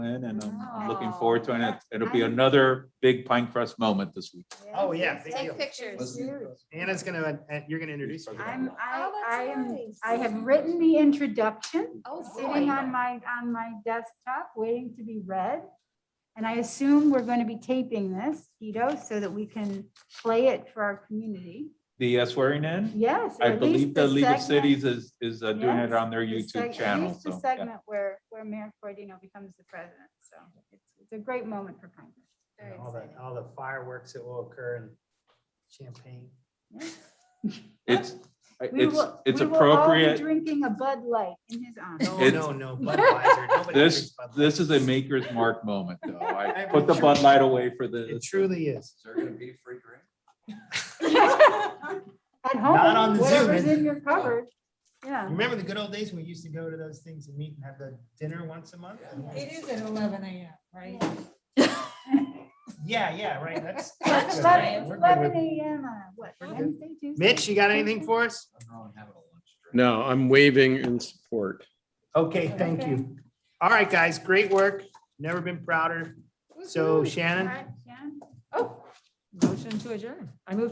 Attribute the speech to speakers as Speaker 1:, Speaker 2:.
Speaker 1: in and I'm looking
Speaker 2: Oh,
Speaker 1: forward to it. and
Speaker 2: that-
Speaker 1: it- It'll be
Speaker 2: I-
Speaker 1: another big Pine Crest moment this week.
Speaker 3: Oh, yeah, big deal.
Speaker 2: Take pictures. Oh,
Speaker 3: Anna's gonna, uh, you're gonna introduce. her.
Speaker 2: I'm, I, I am,
Speaker 4: I have written the introduction
Speaker 2: oh,
Speaker 4: sitting
Speaker 2: boy.
Speaker 4: on my, on my desktop, waiting to be read. And I assume we're going to be taping this, Tito, so that we can play it for our community.
Speaker 1: The uh, swearing in,
Speaker 4: Yes.
Speaker 1: I
Speaker 4: at
Speaker 1: believe
Speaker 4: least
Speaker 1: the League of
Speaker 4: segment-
Speaker 1: Cities is, is uh, doing it
Speaker 4: Yes,
Speaker 1: on their
Speaker 4: the seg-
Speaker 1: YouTube
Speaker 4: at
Speaker 1: channel.
Speaker 4: least The
Speaker 1: So yeah.
Speaker 4: segment where, where Mayor Corradino becomes the president. So it's, it's a great moment for Congress.
Speaker 2: Very
Speaker 3: And All the,
Speaker 2: exciting.
Speaker 3: all the fireworks that will occur and champagne.
Speaker 1: it's,
Speaker 4: We
Speaker 1: it's,
Speaker 4: will-
Speaker 1: it's
Speaker 4: we will all be
Speaker 1: appropriate.
Speaker 4: Drinking a Bud Light in his honor.
Speaker 3: No,
Speaker 1: It's-
Speaker 3: no, no, Budweiser. Nobody
Speaker 1: This,
Speaker 3: drinks Bud Light.
Speaker 1: this is a maker's mark moment though. I
Speaker 3: I
Speaker 1: put the
Speaker 3: mean,
Speaker 1: Bud
Speaker 3: truly-
Speaker 1: Light away for the.
Speaker 3: It truly is.
Speaker 5: Is there gonna be a free drink?
Speaker 4: At
Speaker 3: Not on
Speaker 4: home,
Speaker 3: the
Speaker 4: whatever's
Speaker 3: Zoom.
Speaker 4: in your cupboard. Yeah.
Speaker 3: Remember the good old days when we used to go to those things and meet and have the dinner once a month?
Speaker 6: It is at eleven AM, right?
Speaker 3: Yeah, yeah, right, that's.
Speaker 4: That's
Speaker 3: that's good,
Speaker 4: eleven-
Speaker 3: right?
Speaker 4: it's
Speaker 3: We're good
Speaker 4: eleven
Speaker 3: with-
Speaker 4: AM, on what,
Speaker 3: We're good.
Speaker 4: Wednesday, Tuesday?
Speaker 3: Mitch, you got anything for us?
Speaker 5: I'm probably having a lunch drink.
Speaker 7: No, I'm waving in support.
Speaker 3: Okay, thank you. All right, guys, great work. Never been prouder. So
Speaker 4: Woohoo.
Speaker 3: Shannon?
Speaker 4: All right, Shannon?
Speaker 6: Motion to adjourn. I move